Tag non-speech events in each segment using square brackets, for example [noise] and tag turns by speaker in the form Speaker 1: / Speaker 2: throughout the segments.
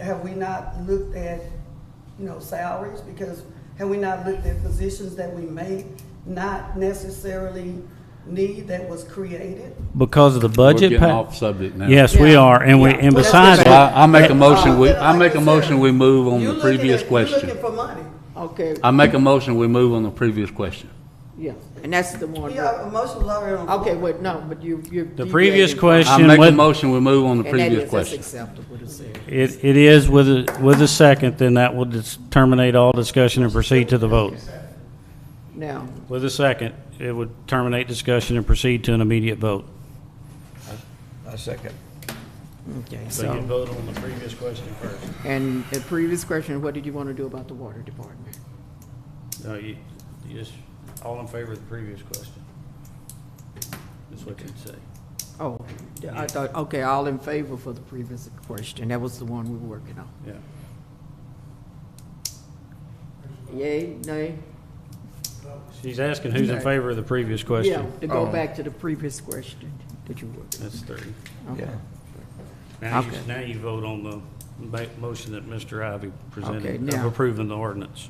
Speaker 1: have we not looked at, you know, salaries? Because have we not looked at positions that we may not necessarily need that was created?
Speaker 2: because of the
Speaker 3: We're
Speaker 2: budget.
Speaker 3: getting
Speaker 2: pa-
Speaker 3: off subject now.
Speaker 2: Yes, we
Speaker 1: Yeah.
Speaker 2: are, and we, and
Speaker 1: Yeah.
Speaker 2: besides,
Speaker 3: So I, I make a
Speaker 2: that-
Speaker 3: motion, we,
Speaker 1: Uh,
Speaker 3: I make a
Speaker 1: like I
Speaker 3: motion,
Speaker 1: said,
Speaker 3: we move on
Speaker 1: You
Speaker 3: the
Speaker 1: looking at-
Speaker 3: previous
Speaker 1: You looking
Speaker 3: question.
Speaker 1: for money.
Speaker 4: Okay,
Speaker 2: Uh,
Speaker 3: I make a motion, we move on the previous question.
Speaker 4: yeah, and that's the one.
Speaker 1: Yeah, emotional already on.
Speaker 4: Okay, wait, no, but you, you.
Speaker 2: The
Speaker 4: you
Speaker 2: previous
Speaker 4: gave it-
Speaker 3: I
Speaker 2: question,
Speaker 3: make a
Speaker 2: with,
Speaker 3: motion, we move on the
Speaker 4: And that
Speaker 3: previous
Speaker 4: is, that's
Speaker 3: question.
Speaker 4: acceptable to say.
Speaker 2: it, it is with a, with a second, then that will dis- terminate all discussion and proceed to the vote.
Speaker 4: Now,
Speaker 2: With a second, it would terminate discussion and proceed to an immediate vote.
Speaker 5: I second.
Speaker 4: okay, so,
Speaker 2: vote on the previous question first.
Speaker 4: and the previous question, what did you want to do about the water department?
Speaker 2: No, you, you just, all in favor of the previous question. That's what you'd say.
Speaker 4: Oh, I thought, okay, all in favor for the previous question, that was the one we were working on.
Speaker 2: Yeah.
Speaker 4: Yay, nay?
Speaker 2: She's asking who's in favor of the previous question.
Speaker 4: Yeah, to go
Speaker 5: Oh.
Speaker 4: back to the previous question that you were.
Speaker 2: That's three.
Speaker 4: Okay.
Speaker 5: Yeah.
Speaker 2: Now you,
Speaker 4: Okay.
Speaker 2: now you vote on the ma- motion that Mr. Ivy
Speaker 4: Okay,
Speaker 2: presented of
Speaker 4: now-
Speaker 2: approving the ordinance.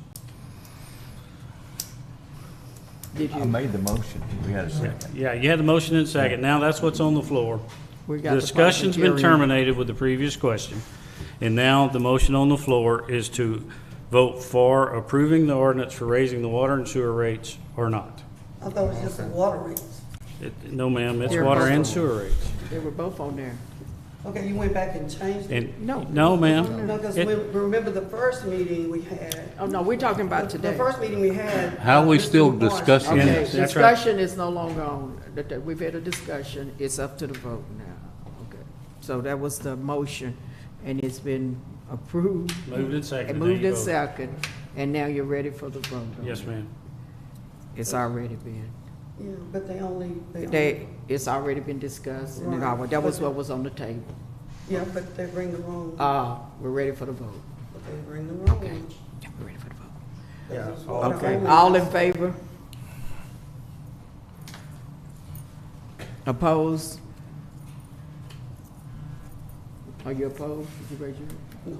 Speaker 4: Did
Speaker 5: I
Speaker 4: you,
Speaker 5: made the motion. We had a second.
Speaker 2: Yeah, you had the motion and second. Now that's what's on the floor.
Speaker 4: We got the
Speaker 2: Discussion's been
Speaker 4: public hearing.
Speaker 2: terminated with the previous question. And now the motion on the floor is to vote for approving the ordinance for raising the water and sewer rates or not.
Speaker 1: I thought it was just the water rates.
Speaker 2: It- No, ma'am, it's
Speaker 4: They're
Speaker 2: water
Speaker 4: both
Speaker 2: and
Speaker 4: on.
Speaker 2: sewer rates.
Speaker 4: they were both on there.
Speaker 1: Okay, you went back and changed it.
Speaker 2: And,
Speaker 4: No.
Speaker 2: no, ma'am.
Speaker 1: No, because
Speaker 2: It-
Speaker 1: we, remember the first meeting we had?
Speaker 4: Oh, no, we're talking about
Speaker 1: The- The
Speaker 4: today.
Speaker 1: first meeting we had.
Speaker 3: How are we
Speaker 1: Mr.
Speaker 3: still
Speaker 1: Morris-
Speaker 3: discussing
Speaker 2: Yeah,
Speaker 4: Okay,
Speaker 2: that's right.
Speaker 4: discussion is no longer on, That- that- we've had a discussion, it's up to the vote now. Okay. So that was the motion, and it's been approved.
Speaker 2: Moved and seconded.
Speaker 4: And
Speaker 2: Now
Speaker 4: Moved
Speaker 2: you
Speaker 4: and
Speaker 2: vote.
Speaker 4: second, and now you're ready for the vote. on
Speaker 2: Yes,
Speaker 4: it.
Speaker 2: ma'am.
Speaker 4: It's already been,
Speaker 1: Yeah, but they only. only-
Speaker 4: they, it's already been discussed, and it
Speaker 1: Right.
Speaker 4: all- that was what was on the table.
Speaker 1: Yeah, but they bring the wrong,
Speaker 4: Uh, we're ready for the vote.
Speaker 1: but they bring the wrong
Speaker 4: Okay.
Speaker 1: one.
Speaker 4: Yeah, we're ready for the vote.
Speaker 1: Yeah.
Speaker 4: Okay, all in favor? Opposed? Are you opposed? Did you raise your?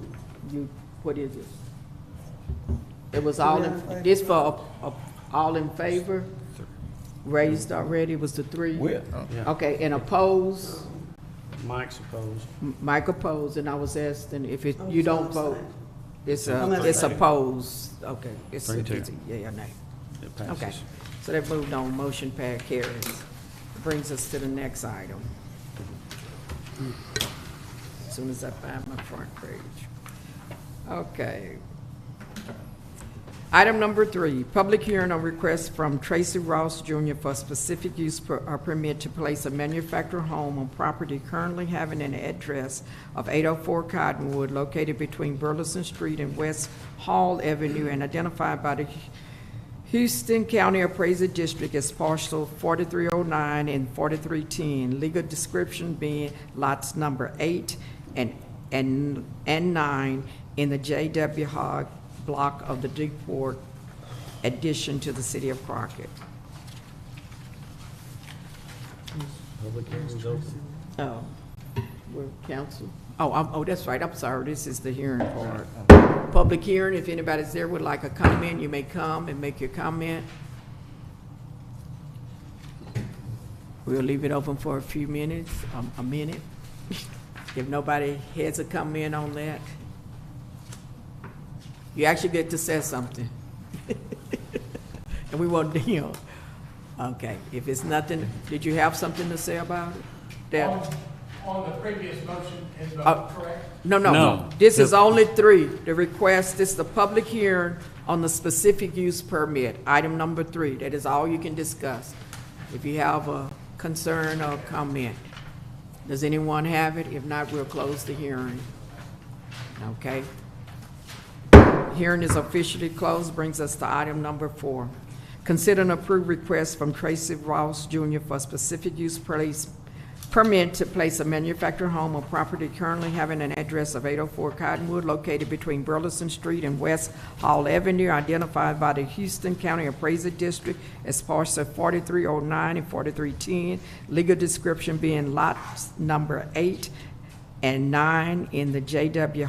Speaker 4: You, what is it? It was all, in this for, a- a- all in favor? Raised already, it was the three?
Speaker 5: We, uh,
Speaker 2: Yeah.
Speaker 4: Okay, and opposed,
Speaker 2: Mike's opposed.
Speaker 4: M- Mike opposed, and I was asking if it,
Speaker 1: I'm
Speaker 4: you don't
Speaker 1: sorry.
Speaker 4: vote, it's,
Speaker 1: I'm
Speaker 4: uh,
Speaker 1: not
Speaker 4: it's
Speaker 1: saying.
Speaker 4: opposed, okay. It's,
Speaker 2: Three, two.
Speaker 4: it's, yeah, yeah, nay.
Speaker 2: It
Speaker 4: Okay,
Speaker 2: passes.
Speaker 4: so that moved on, motion par carries. Brings us to the next item. As Soon as I find my front page. Okay. Item number three, public hearing on request from Tracy Ross Jr. for specific use per- uh, permit to place a manufactured home on property currently having an address of 804 Cottonwood located between Burleson Street and West Hall Avenue and identified by the Houston County Appraiser District as parcel 4309 and 4310, legal description being lots number eight and, and, and nine in the J.W. Hogg block of the Deeport addition to the city of Crockett.
Speaker 2: Public hearing's open.
Speaker 4: Oh, we're council. Oh, I'm, oh, that's right, I'm sorry, this is the hearing part. Public hearing, if anybody's there would like a comment, you may come and make your comment. We'll leave it open for a few minutes, um, a minute. [laughs] If nobody has a comment on that, you actually get to say something. [laughs] And we won't [laughs] deal. Okay, if it's nothing, did you have something to say about it? Deb?
Speaker 6: On on the previous motion and
Speaker 4: Uh,
Speaker 6: vote, correct?
Speaker 4: No, no.
Speaker 3: No.
Speaker 4: This is only three. The request is the public hearing on the specific use permit, item number three. That is all you can discuss. If you have a concern or comment. Does anyone have it? If not, we'll close the hearing. Okay? Hearing is officially closed, brings us to item number four. Consider an approved request from Tracy Ross Jr. for specific use place, permit to place a manufactured home on property currently having an address of 804 Cottonwood located between Burleson Street and West Hall Avenue identified by the Houston County Appraiser District as parcel 4309 and 4310, legal description being lots number eight and nine in the JW